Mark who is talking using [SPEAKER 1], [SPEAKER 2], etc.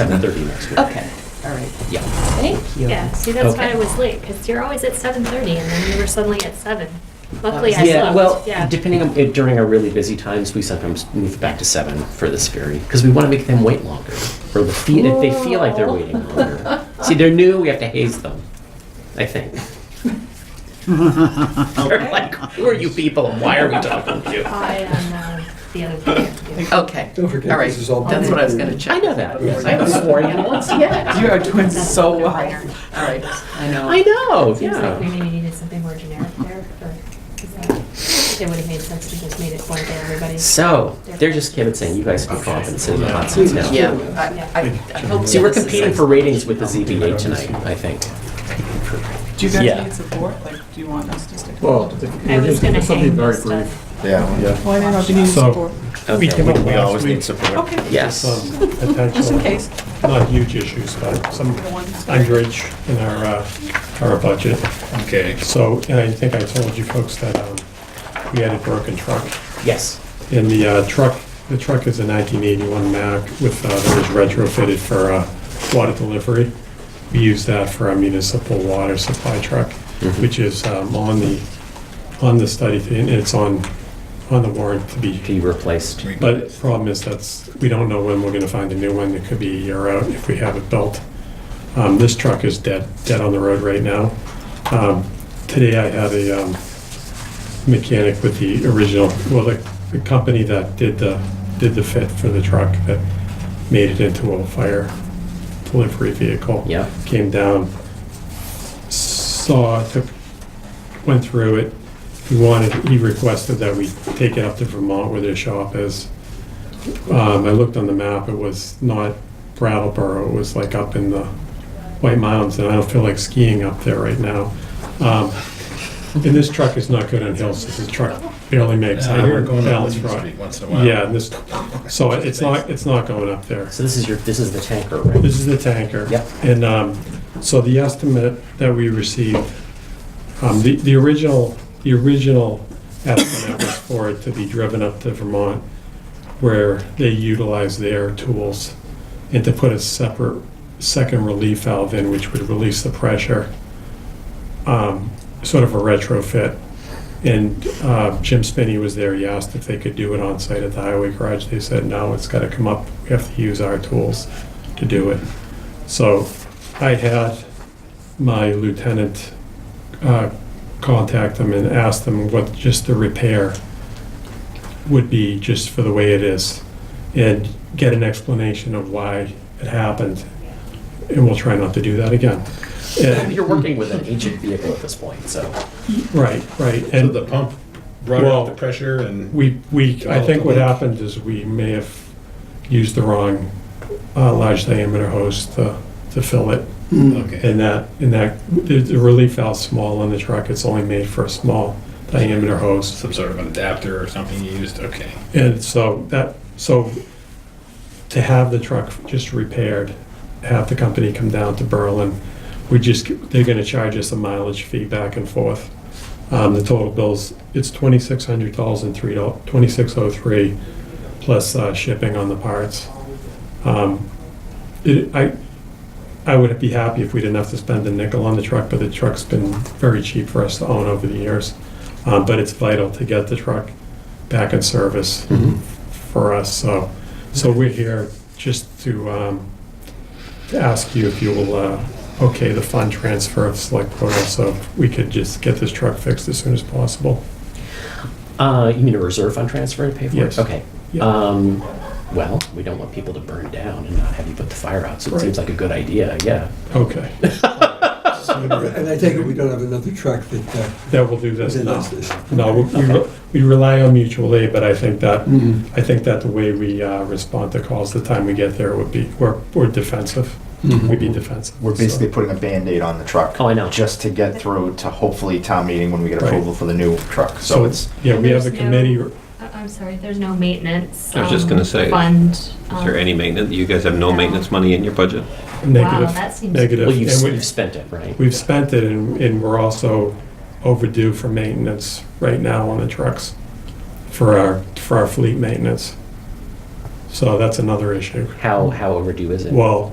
[SPEAKER 1] 7:30 next week.
[SPEAKER 2] Okay, all right.
[SPEAKER 1] Yeah.
[SPEAKER 2] Thank you.
[SPEAKER 3] Yeah, see, that's why
[SPEAKER 1] Okay.
[SPEAKER 3] I was late, because you're always at seven thirty, and then you were suddenly at seven. Luckily, I
[SPEAKER 1] Yeah, well,
[SPEAKER 3] slept, yeah.
[SPEAKER 1] depending on, it- during our really busy times, we sometimes move back to seven for this ferry, because we want to make them wait longer, or the fee, if they feel like they're waiting longer. See, they're new, we have to haze them, I think. They're like, who are you people, and why are we talking to you?
[SPEAKER 3] I am, uh, the other thing.
[SPEAKER 2] Okay.
[SPEAKER 4] Don't forget,
[SPEAKER 2] All right.
[SPEAKER 4] this is all
[SPEAKER 2] That's what I was going to check.
[SPEAKER 1] I know that, yes, I haven't sworn at you once yet.
[SPEAKER 2] You are doing
[SPEAKER 3] That's
[SPEAKER 2] so
[SPEAKER 3] a
[SPEAKER 2] well.
[SPEAKER 3] no-brainer.
[SPEAKER 2] All right, I
[SPEAKER 1] I
[SPEAKER 2] know.
[SPEAKER 1] know,
[SPEAKER 3] Seems like we
[SPEAKER 1] yeah.
[SPEAKER 3] maybe needed something more generic there, or, is that, it would have made sense to just made it one to everybody.
[SPEAKER 1] So, they're just kibitzing, you guys can off and sit in the hot seats now.
[SPEAKER 2] Yeah, I- I, I hope.
[SPEAKER 1] See, we're
[SPEAKER 2] this is
[SPEAKER 1] competing
[SPEAKER 2] it.
[SPEAKER 1] for ratings with the ZBA tonight, I think.
[SPEAKER 5] Do you guys
[SPEAKER 1] Yeah.
[SPEAKER 5] need support? Like, do you want us to stick?
[SPEAKER 6] Well,
[SPEAKER 3] I
[SPEAKER 6] it
[SPEAKER 3] was
[SPEAKER 6] is,
[SPEAKER 3] gonna
[SPEAKER 6] it's something
[SPEAKER 3] hang
[SPEAKER 6] very
[SPEAKER 3] this
[SPEAKER 6] brief.
[SPEAKER 3] stuff.
[SPEAKER 7] Yeah.
[SPEAKER 5] Well, I don't know if you need
[SPEAKER 6] So-
[SPEAKER 5] support.
[SPEAKER 1] Okay.
[SPEAKER 6] We came up um,
[SPEAKER 7] We
[SPEAKER 6] last
[SPEAKER 7] always
[SPEAKER 6] week
[SPEAKER 7] need support.
[SPEAKER 5] Okay.
[SPEAKER 1] Yes.
[SPEAKER 6] some potential,
[SPEAKER 5] Just in case.
[SPEAKER 6] not huge issues, but some underage in our, uh, our budget.
[SPEAKER 7] Okay.
[SPEAKER 6] So, and I think I told you folks that um, we had a broken truck.
[SPEAKER 1] Yes.
[SPEAKER 6] And the uh, truck, the truck is a 1981 Mack with, uh, that was retrofitted for uh, water delivery. We use that for our municipal water supply truck, which is um, on the, on the study, and it's on, on the warrant to be
[SPEAKER 1] Be replaced.
[SPEAKER 6] But the problem is that's, we don't know when we're gonna find a new one. It could be a year out if we have it built. Um, this truck is dead, dead on the road right now. Um, today I had a, um, mechanic with the original, well, the, the company that did the, did the fit for the truck that made it into a fire delivery vehicle.
[SPEAKER 1] Yeah.
[SPEAKER 6] Came down, saw, took, went through it. He wanted, he requested that we take it up to Vermont where their shop is. Um, I looked on the map, it was not Brattleboro, it was like up in the White Mountains, and I don't feel like skiing up there right now. Um, and this truck is not good on hills, this truck barely makes,
[SPEAKER 7] uh,
[SPEAKER 6] I hear balance right.
[SPEAKER 7] once in a
[SPEAKER 6] Yeah, and this, so it's not, it's not going up there.
[SPEAKER 1] So this is your, this is the tanker, right?
[SPEAKER 6] This is the tanker.
[SPEAKER 1] Yep.
[SPEAKER 6] And um, so the estimate that we received, um, the, the original, the original estimate was for it to be driven up to Vermont where they utilize their tools and to put a separate second relief valve in, which would release the pressure, um, sort of a retrofit. And uh, Jim Spinney was there, he asked if they could do it on site at the highway garage. They said, no, it's gotta come up, we have to use our tools to do it. So I had my lieutenant uh, contact them and ask them what just the repair would be just for the way it is and get an explanation of why it happened. And we'll try not to do that again. And-
[SPEAKER 1] You're working with an ancient vehicle at this point, so.
[SPEAKER 6] Right, right.
[SPEAKER 7] So
[SPEAKER 6] And
[SPEAKER 7] the Oh, pump brought
[SPEAKER 6] Well,
[SPEAKER 7] up the pressure and.
[SPEAKER 6] we, we, I think what happened is we may have used the wrong uh, large diameter hose to, to fill it.
[SPEAKER 7] Okay.
[SPEAKER 6] And that, and that, the the relief valve's small on the truck, it's only made for a small diameter hose.
[SPEAKER 7] Some sort of an adapter or something you used, okay.
[SPEAKER 6] And so that, so to have the truck just repaired, have the company come down to Berlin, we just, they're gonna charge us a mileage fee back and forth. Um, the total bills, it's twenty-six hundred dollars and three dollars, twenty-six oh three, plus, uh, shipping on the parts. Um, It, I, I would be happy if we didn't have to spend a nickel on the truck, but the truck's been very cheap for us to own over the years. Um, but it's vital to get the truck back in service for us, so, so we're here just to, um, to ask you if you will, uh, okay the fund transfer of select quota, so we could just get this truck fixed as soon as possible.
[SPEAKER 1] Uh, you mean a reserve fund transfer to pay for it?
[SPEAKER 6] Yes.
[SPEAKER 1] Okay.
[SPEAKER 6] Yeah.
[SPEAKER 1] Um, well, we don't want people to burn down and not have you put the fire out, so it
[SPEAKER 6] Right.
[SPEAKER 1] seems like a good idea, yeah.
[SPEAKER 6] Okay,
[SPEAKER 4] And I take it we don't have another truck that, uh,
[SPEAKER 6] that will do this.
[SPEAKER 4] that does this.
[SPEAKER 6] No, we- we, we rely on mutual aid, but I think that,
[SPEAKER 1] Mm-hmm.
[SPEAKER 4] Mm-hmm.
[SPEAKER 6] I think that the way we uh, respond to calls, the time we get there would be, we're, we're defensive.
[SPEAKER 1] Mm-hmm.
[SPEAKER 6] We'd be defensive.
[SPEAKER 8] We're basically
[SPEAKER 6] so.
[SPEAKER 8] putting a Band-Aid on the truck.
[SPEAKER 1] Oh, I know.
[SPEAKER 8] Just to get through to hopefully town meeting when we get
[SPEAKER 6] Right.
[SPEAKER 8] approval for the new truck. So it's,
[SPEAKER 6] Yeah, we have a
[SPEAKER 3] There's no-
[SPEAKER 6] committee,
[SPEAKER 3] I- Uh, I'm sorry, there's no maintenance.
[SPEAKER 9] I was just
[SPEAKER 3] um,
[SPEAKER 9] gonna say,
[SPEAKER 3] Fund. um,
[SPEAKER 9] Is there any maintenance, you guys have no
[SPEAKER 3] No.
[SPEAKER 9] maintenance money in your budget?
[SPEAKER 6] negative,
[SPEAKER 3] that seems-
[SPEAKER 6] negative.
[SPEAKER 1] Well, you've,
[SPEAKER 6] and we-
[SPEAKER 1] you've spent it, right?
[SPEAKER 6] We've spent it, and and we're also overdue for maintenance right now on the trucks for our, for our fleet maintenance.
[SPEAKER 1] So that's another issue.
[SPEAKER 6] How, how overdue is it?
[SPEAKER 1] Well,